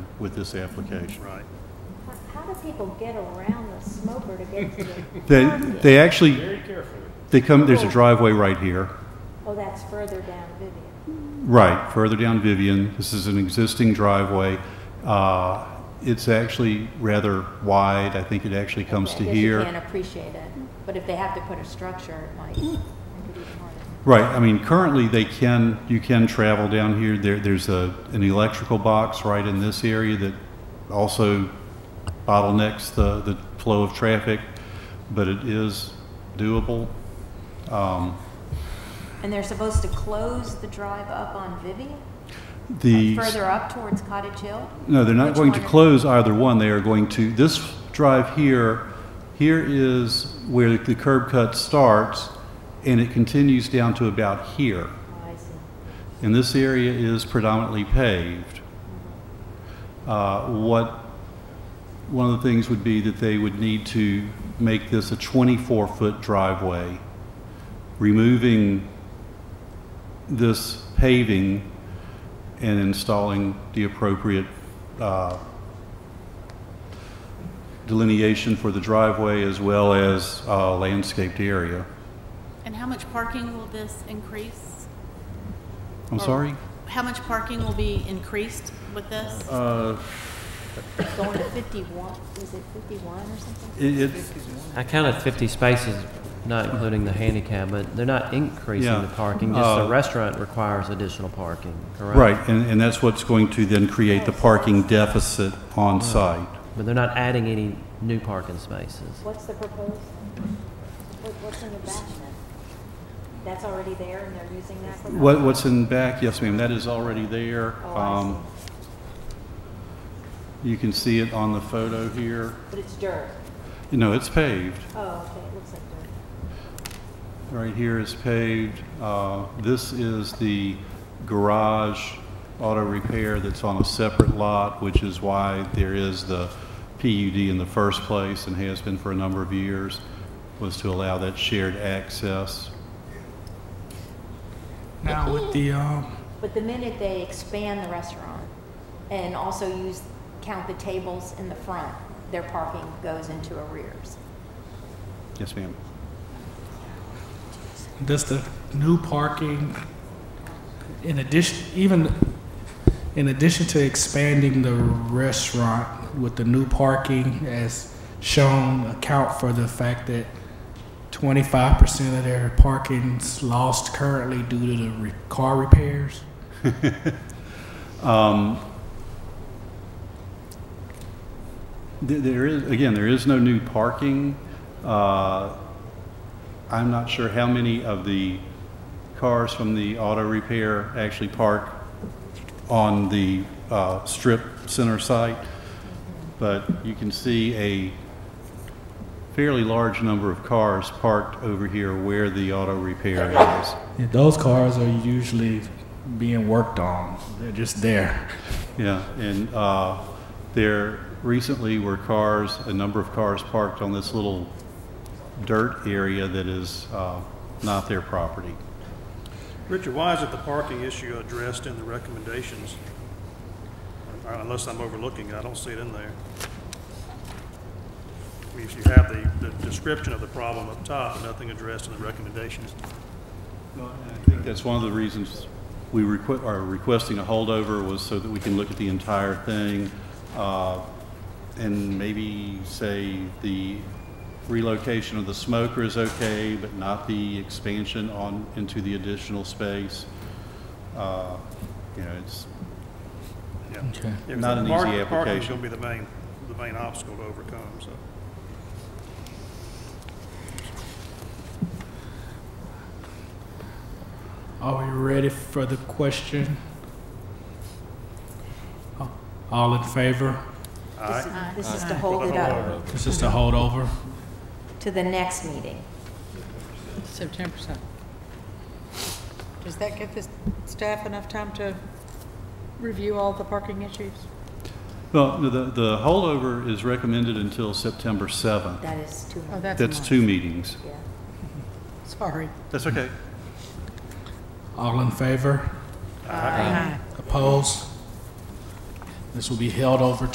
with this application. Right. How- How do people get around the smoker to get to the They, target? they actually, Very carefully. they come, there's a driveway right here, Oh, that's further down Vivian. right, further down Vivian. This is an existing driveway. Uh, It's actually rather wide. I think it actually comes to I guess here. you can't appreciate it, but if they have to put a structure, it might make Mm. it even harder. Right, I mean, currently, they can, you can travel down here, there, there's a, an electrical box right in this area that also bottlenecks the, the flow of traffic, but it is doable. And they're supposed to close the drive up on Vivian, The, further up towards Cottage Hill? no, they're not Which going to one? close either one, they are going to, this drive here, here is where the curb cut starts, and it continues down to about here. Oh, I see. And this area is predominantly paved. Uh, What, one of the things would be that they would need to make this a 24-foot driveway. Removing this paving and installing the appropriate uh, delineation for the driveway as well as uh, landscaped area. And how much parking will this increase? I'm Or sorry? How much parking will be increased with this? It's Going to 51, is it 51 or something? It- It's, I counted 50 spaces, not including the handicap, but they're not Yeah. increasing the parking, just Uh, the restaurant requires additional parking, correct? Right, and, and that's what's going to then create the parking deficit Mm. on site. But they're not adding any new parking spaces. What's the proposed, what- what's in the back then? That's already there and they're using that for... What, what's in back, yes ma'am, that is already there. Oh, I Um, You can see it on the photo here. But it's dirt. You know, it's paved. Oh, okay, it looks like dirt. Right here is paved. Uh, This is the garage auto repair that's on a separate lot, which is why there is the PUD in the first place and has been for a number of years, was to allow that shared access. Now with the, um, But the minute they expand the restaurant and also use, count the tables in the front, their parking goes into arrears. Yes ma'am. does the new parking, in addition, even, in addition to expanding the restaurant with the new parking as shown, account for the fact that twenty-five percent of their parking's lost currently due to the re- car repairs? Th- There is, again, there is no new parking. Uh, I'm not sure how many of the cars from the auto repair actually park on the uh, strip center site, but you can see a fairly large number of cars parked over here where the auto repair is. Yeah, those cars are usually being worked on. They're just there. Yeah, and uh, there recently were cars, a number of cars parked on this little dirt area that is uh, not their property. Richard, why isn't the parking issue addressed in the recommendations? Uh, Unless I'm overlooking it, I don't see it in there. I mean, if you have the, the description of the problem up top, but nothing addressed in the recommendations. I think that's one of the reasons we requ- are requesting a holdover was so that we can look at the entire thing uh, and maybe say the relocation of the smoker is okay, but not the expansion on, into the additional space. Uh, You know, it's, Yeah. Okay. Yeah, 'cause Not an the park- easy Parking's application. gonna be the main, the main obstacle to overcome, so. Are we ready for the question? All in favor? This is- This is to hold it up This is the holdover. to the next meeting. So ten percent. Does that give the staff enough time to review all the parking issues? Well, no, the, the holdover is recommended until September 7th. That is too Oh, much, that's a That's month. two meetings. yeah. Sorry. That's okay. All in favor? Aye. Opposed? This will be held over